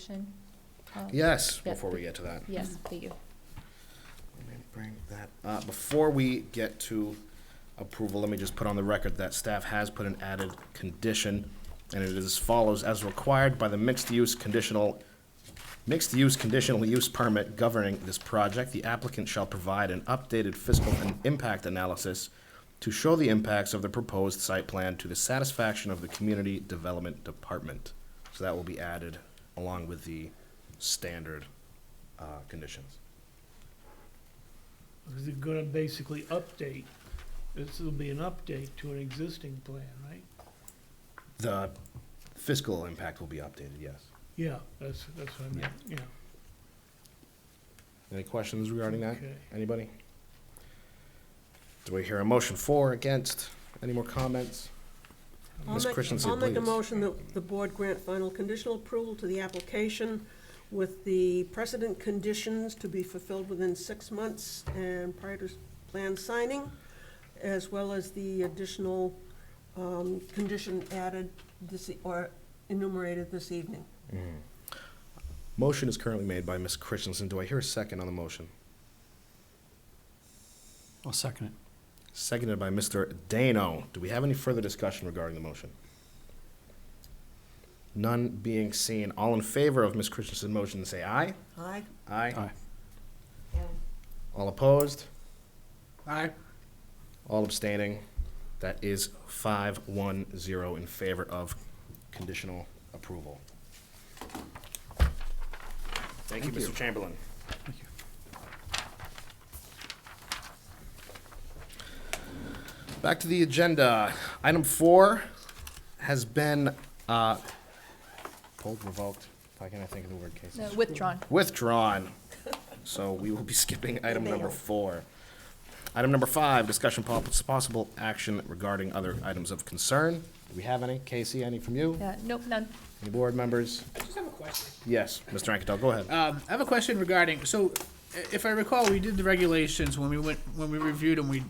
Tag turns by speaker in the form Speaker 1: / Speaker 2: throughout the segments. Speaker 1: discussion? Uh,
Speaker 2: Yes,
Speaker 1: Yeah.
Speaker 2: before we get to that.
Speaker 1: Yes, thank you.
Speaker 2: Let me bring that, uh, before we get to approval, let me just put on the record that staff has put an added condition, and it is as follows, as required by the mixed-use conditional, mixed-use conditional use permit governing this project, the applicant shall provide an updated fiscal and impact analysis to show the impacts of the proposed site plan to the satisfaction of the Community Development Department. So that will be added along with the standard, uh, conditions.
Speaker 3: Because they're gonna basically update, this will be an update to an existing plan, right?
Speaker 2: The fiscal impact will be updated, yes.
Speaker 3: Yeah, that's, that's what I meant, yeah.
Speaker 2: Any questions regarding that?
Speaker 3: Okay.
Speaker 2: Anybody? Do we hear a motion for, against? Any more comments?
Speaker 4: I'll
Speaker 2: Ms.
Speaker 4: make-
Speaker 2: Christensen,
Speaker 4: I'll make a
Speaker 2: please.
Speaker 4: motion that the board grant final conditional approval to the application with the precedent conditions to be fulfilled within six months and prior to s- plan signing, as well as the additional um, condition added this, e- or enumerated this evening.
Speaker 2: Motion is currently made by Ms. Christensen. Do I hear a second on the motion?
Speaker 5: I'll second it.
Speaker 2: Seconded by Mr. Dano. Do we have any further discussion regarding the motion? None being seen. All in favor of Ms. Christensen's motion, say aye.
Speaker 4: Aye?
Speaker 2: Aye.
Speaker 5: Aye.
Speaker 2: All opposed?
Speaker 5: Aye.
Speaker 2: All abstaining. That is five one zero in favor of conditional approval. Thank you, Mr. Chamberlain. Back to the agenda. Item four has been, uh, pulled, revoked. How can I think of the word cases?
Speaker 1: No, Withdrawn.
Speaker 2: Withdrawn. So we will be skipping item number four. Item number five, discussion po- possible action regarding other items of concern. Do we have any? Casey, any from you?
Speaker 1: Yeah, nope, none.
Speaker 2: Any board members?
Speaker 6: I just have a question.
Speaker 2: Yes, Mr. Anketell, go ahead.
Speaker 6: Um, I have a question regarding, so i- if I recall, we did the regulations when we went, when we reviewed them, we,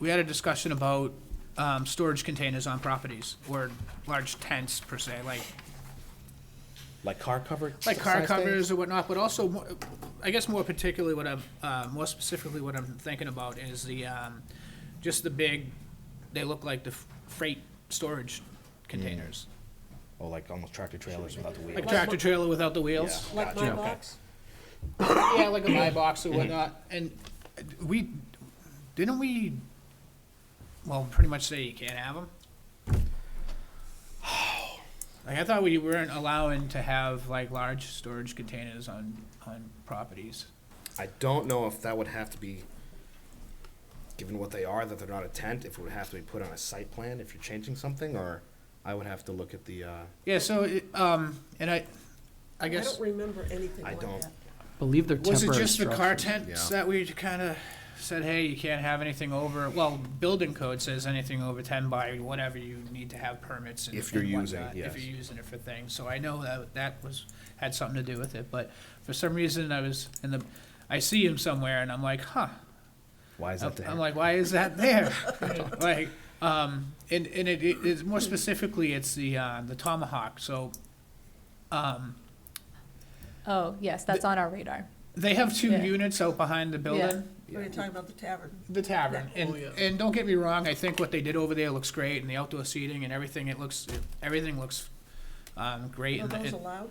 Speaker 6: we had a discussion about, um, storage containers on properties or large tents per se, like,
Speaker 2: Like car cover?
Speaker 6: like car
Speaker 2: size things?
Speaker 6: covers or whatnot, but also, mo- I guess more particularly what I'm, uh, more specifically what I'm thinking about is the, um, just the big, they look like the f- freight storage containers.
Speaker 2: Oh, like almost tractor trailers without the
Speaker 6: Like
Speaker 2: wheels.
Speaker 6: tractor trailer without the wheels.
Speaker 4: Like my
Speaker 2: Gotcha.
Speaker 4: box?
Speaker 6: Yeah, like a my box or whatnot, and we, didn't we, well, pretty much say you can't have them? Like, I thought we weren't allowing to have like large storage containers on, on properties.
Speaker 2: I don't know if that would have to be, given what they are, that they're not a tent, if it would have to be put on a site plan if you're changing something, or I would have to look at the, uh,
Speaker 6: Yeah, so, it, um, and I, I
Speaker 4: I
Speaker 6: guess,
Speaker 4: don't remember anything
Speaker 2: I
Speaker 4: like
Speaker 2: don't.
Speaker 4: that.
Speaker 5: Believe they're
Speaker 6: was it
Speaker 5: temporary
Speaker 6: just the car
Speaker 5: structures.
Speaker 6: tents
Speaker 2: Yeah.
Speaker 6: that we kinda said, hey, you can't have anything over, well, building code says anything over ten by whatever you need to have permits and
Speaker 2: If you're
Speaker 6: and
Speaker 2: using,
Speaker 6: whatnot,
Speaker 2: yes.
Speaker 6: If you're using it for things, so I know that, that was, had something to do with it, but for some reason I was in the, I see him somewhere and I'm like, huh.
Speaker 2: why is
Speaker 6: I'm
Speaker 2: that there?
Speaker 6: I'm like, why is that there? Like, um, and, and it, it- it's more specifically, it's the, uh, the tomahawk, so, um,
Speaker 1: Oh, yes, that's on our radar.
Speaker 6: they have two
Speaker 1: Yeah.
Speaker 6: units out behind the building.
Speaker 4: Are you talking about the tavern?
Speaker 6: The tavern, and,
Speaker 3: Oh, yeah.
Speaker 6: and don't get me wrong, I think what they did over there looks great, and the outdoor seating and everything, it looks, everything looks, um, great.
Speaker 4: Are
Speaker 6: and-
Speaker 4: those
Speaker 6: and-
Speaker 4: allowed?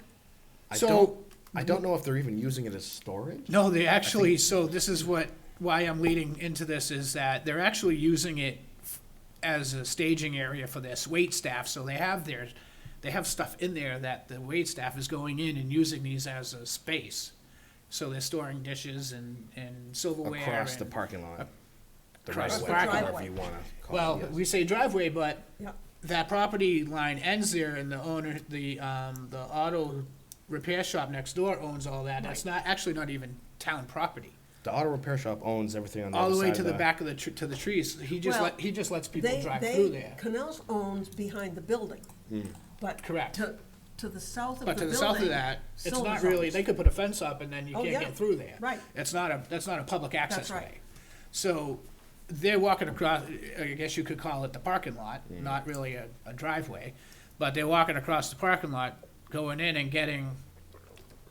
Speaker 2: I
Speaker 6: So-
Speaker 2: don't, I don't know if they're even using it as storage.
Speaker 6: No, they actually, so this is what, why I'm leading into this is that they're actually using it f- as a staging area for this wait staff, so they have their, they have stuff in there that the wait staff is going in and using these as a space. So they're storing dishes and, and silverware.
Speaker 2: Across the
Speaker 6: and-
Speaker 2: parking lot. The right
Speaker 6: across
Speaker 2: of
Speaker 6: the
Speaker 2: way,
Speaker 6: parking
Speaker 2: however
Speaker 4: lot.
Speaker 2: you wanna call it.
Speaker 6: Well,
Speaker 2: yes.
Speaker 6: we say driveway, but
Speaker 4: Yeah.
Speaker 6: that property line ends there and the owner, the, um, the auto repair shop next door owns all that. That's not, actually not even town property.
Speaker 2: The auto repair shop owns everything on the
Speaker 6: All
Speaker 2: other
Speaker 6: the way
Speaker 2: side
Speaker 6: to
Speaker 2: of
Speaker 6: the
Speaker 2: the.
Speaker 6: back of the, tr- to the trees. He just
Speaker 4: Well,
Speaker 6: let, he just lets people
Speaker 4: They,
Speaker 6: drive through
Speaker 4: they,
Speaker 6: there.
Speaker 4: Canals owns behind the building, but.
Speaker 6: Correct.
Speaker 4: To, to the south of the
Speaker 6: But
Speaker 4: building.
Speaker 6: to the south of that, it's not
Speaker 4: Silver's
Speaker 6: really,
Speaker 4: owns.
Speaker 6: they could put a fence up and then you
Speaker 4: Oh,
Speaker 6: can't
Speaker 4: yeah.
Speaker 6: get through there.
Speaker 4: Right.
Speaker 6: It's not a, that's not a public access
Speaker 4: right.
Speaker 6: way. So they're walking across, I guess you could call it the parking lot, not really a, a driveway. But they're walking across the parking lot, going in and getting